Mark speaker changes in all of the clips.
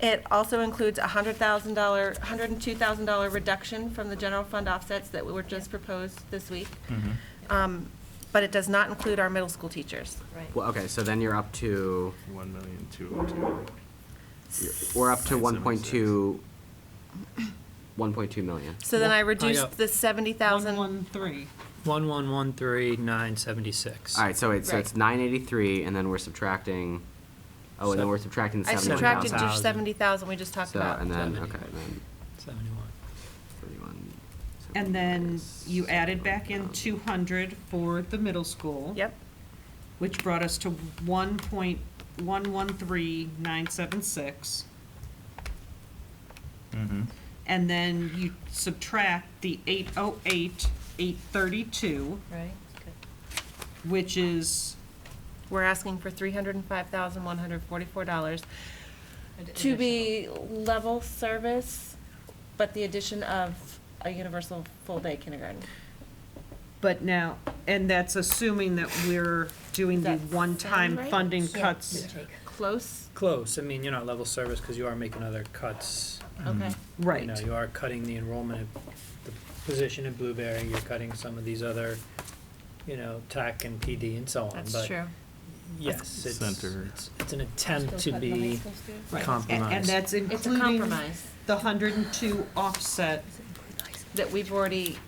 Speaker 1: It also includes a hundred thousand dollar, hundred and two thousand dollar reduction from the general fund offsets that were just proposed this week. Um, But it does not include our middle school teachers.
Speaker 2: Well, okay, so then you're up to,
Speaker 3: One million, two oh two.
Speaker 2: you're- we're up to
Speaker 3: Nine
Speaker 2: one
Speaker 3: seven
Speaker 2: point
Speaker 3: six.
Speaker 2: two, one point two million.
Speaker 1: So then I
Speaker 4: got-
Speaker 1: reduced the seventy thousand.
Speaker 5: One, three.
Speaker 4: One one one three nine seventy six.
Speaker 2: All right, so wait, so it's
Speaker 1: Right.
Speaker 2: nine eighty-three, and then we're subtracting, oh, and then
Speaker 4: Seven-
Speaker 2: we're subtracting
Speaker 1: I
Speaker 2: seventy-one
Speaker 1: subtracted
Speaker 2: thousand.
Speaker 1: the
Speaker 4: 70,000.
Speaker 1: seventy thousand we just talked
Speaker 2: So,
Speaker 1: about.
Speaker 2: and then,
Speaker 4: Seventy.
Speaker 2: okay, and then
Speaker 4: Seventy one.
Speaker 2: thirty-one. um,
Speaker 5: And then you added back in
Speaker 2: 71,000.
Speaker 5: two hundred for the middle school.
Speaker 1: Yep,
Speaker 5: Which brought us to one point one one three nine seven six. And then you subtract the eight oh eight, eight thirty-two,
Speaker 6: Right?
Speaker 5: which is
Speaker 1: we're asking for three hundred and five thousand, one hundred forty-four dollars to be level service, but the addition of a universal full-day kindergarten.
Speaker 5: But now, and that's assuming that we're doing the
Speaker 1: Does that
Speaker 5: one-time
Speaker 1: sound right?
Speaker 5: funding cuts.
Speaker 1: Close,
Speaker 4: Close. I mean, you're not level service because you are making other cuts.
Speaker 1: okay.
Speaker 4: You know, you are cutting the enrollment of the position at Blueberry, you're cutting some of these other, you know, tech and PD and so on.
Speaker 1: That's
Speaker 4: but
Speaker 1: true.
Speaker 4: Yes, it's,
Speaker 3: Center.
Speaker 4: it's, it's an attempt to be
Speaker 5: Right.
Speaker 4: compromised.
Speaker 5: And- And that's
Speaker 1: It's a
Speaker 5: including
Speaker 1: compromise
Speaker 5: the hundred and two offset.
Speaker 1: that we've already,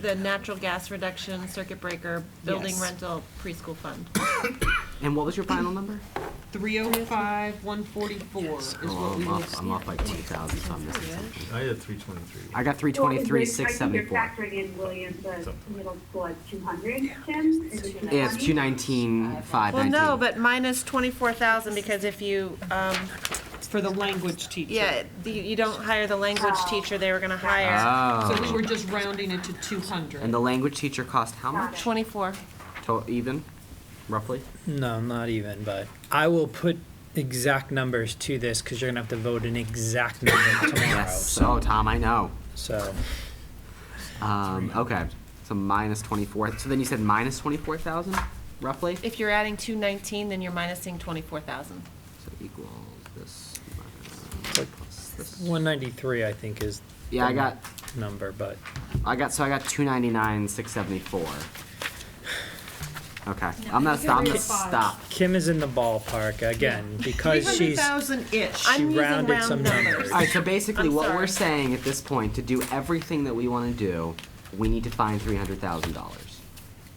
Speaker 1: the natural gas reduction, circuit breaker, building
Speaker 5: Yes.
Speaker 1: rental, preschool fund.
Speaker 2: And what was your final number?
Speaker 5: Three oh five, one forty-four is
Speaker 2: Oh,
Speaker 5: what we
Speaker 2: I'm
Speaker 5: would.
Speaker 2: off, I'm off like two thousand, so I'm missing something.
Speaker 3: I had three twenty-three.
Speaker 2: I got three twenty-three, six
Speaker 7: I
Speaker 2: seventy-four.
Speaker 7: think you're factoring in Williams, the
Speaker 3: Something.
Speaker 7: middle school at two hundred, Jim? Is it
Speaker 2: Yeah, it's two
Speaker 7: 290?
Speaker 2: nineteen, five
Speaker 1: Well,
Speaker 2: nineteen.
Speaker 1: no, but minus twenty-four thousand, because if you, um,
Speaker 5: For the language teacher.
Speaker 1: yeah, the- you don't hire the language teacher they were gonna hire.
Speaker 5: So we
Speaker 2: Oh,
Speaker 5: were just rounding it to two hundred.
Speaker 2: and the language teacher cost how much?
Speaker 1: Twenty-four.
Speaker 2: To- even, roughly?
Speaker 4: No, not even, but I will put exact numbers to this because you're gonna have to vote an exact number tomorrow,
Speaker 2: Yes, oh,
Speaker 4: so,
Speaker 2: Tom, I know.
Speaker 4: so,
Speaker 2: Um, okay, so minus twenty-four, so then you said minus twenty-four thousand, roughly?
Speaker 1: If you're adding two nineteen, then you're minusing twenty-four thousand.
Speaker 2: So equals this minus
Speaker 4: Like-
Speaker 2: plus this.
Speaker 4: one ninety-three, I think, is.
Speaker 2: Yeah, I
Speaker 4: the
Speaker 2: got,
Speaker 4: Number, but
Speaker 2: I got, so I got two ninety-nine, six seventy-four. Okay, I'm gonna stop, I'm gonna stop.
Speaker 4: Kim is in the ballpark again because
Speaker 5: Three hundred
Speaker 4: she's,
Speaker 5: thousand-ish.
Speaker 1: I'm
Speaker 4: she
Speaker 1: using
Speaker 4: rounded
Speaker 1: round
Speaker 4: some
Speaker 1: numbers.
Speaker 4: numbers.
Speaker 2: Alright, so basically
Speaker 1: I'm
Speaker 2: what we're
Speaker 1: sorry.
Speaker 2: saying at this point, to do everything that we wanna do, we need to find three hundred thousand dollars.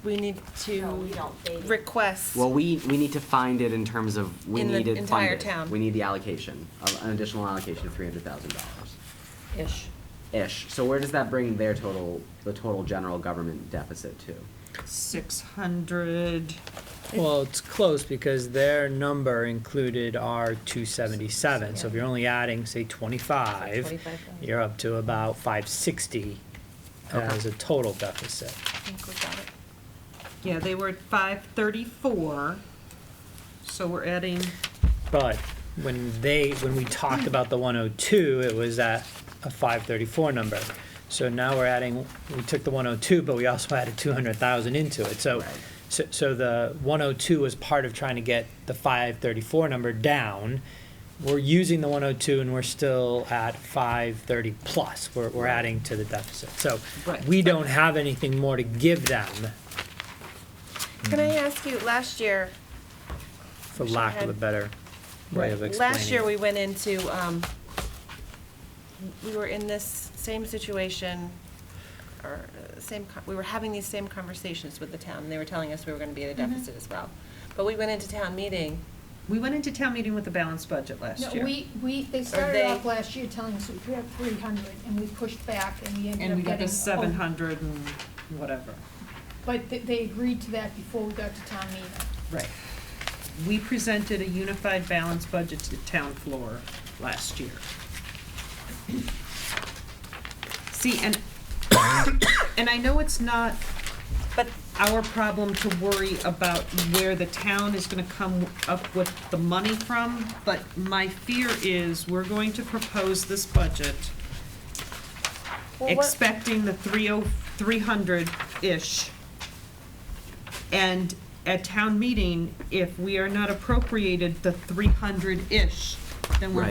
Speaker 1: We need to request.
Speaker 2: Well, we, we need to find it in terms of, we
Speaker 1: In the
Speaker 2: need it
Speaker 1: entire
Speaker 2: funded.
Speaker 1: town.
Speaker 2: We need the allocation, of- an additional allocation of three hundred thousand dollars. Ish. Ish. So where does that bring their total, the total general government deficit to?
Speaker 5: Six hundred.
Speaker 4: Well, it's close because their number included our two seventy-seven, so if you're only adding, say, twenty-five, you're up to about five sixty as a total deficit.
Speaker 1: I think we got it.
Speaker 5: Yeah, they were at five thirty-four. So we're adding,
Speaker 4: But when they, when we talked about the 102, it was at a 534 number. So now we're adding, we took the 102, but we also added 200,000 into it. So,
Speaker 2: Right.
Speaker 4: so so the 102 was part of trying to get the 534 number down. We're using the 102 and we're still at 530 plus. We're, we're adding to the deficit. So
Speaker 5: Right.
Speaker 4: we don't have anything more to give them,
Speaker 1: Can I ask you, last year,
Speaker 4: for
Speaker 1: Wish I
Speaker 4: lack of a
Speaker 1: had-
Speaker 4: better way of explaining.
Speaker 1: Last year,
Speaker 4: it.
Speaker 1: we went into, um, we were in this same situation, or uh, same, co- we were having these same conversations with the town, and they were telling us we were gonna be at a deficit as well. But we went into town meeting,
Speaker 5: we went into town meeting with a balanced budget
Speaker 6: No,
Speaker 5: last year.
Speaker 6: we, we, they started
Speaker 1: they-
Speaker 6: off last year telling us we have three hundred, and we pushed back, and we ended
Speaker 5: And we
Speaker 6: up
Speaker 5: got
Speaker 6: getting.
Speaker 5: the seven
Speaker 6: oh,
Speaker 5: hundred and whatever.
Speaker 6: But they, they agreed to that before we got to town meeting.
Speaker 5: Right. We presented a unified balanced budget to the town floor last year. See, and, and I know it's not
Speaker 1: but
Speaker 5: our problem to worry about where the town is gonna come up with the money from, but my fear is we're going to propose this budget
Speaker 1: Well, what-
Speaker 5: expecting the three oh, three hundred-ish. And at town meeting, if we are not appropriated the three hundred-ish, then we're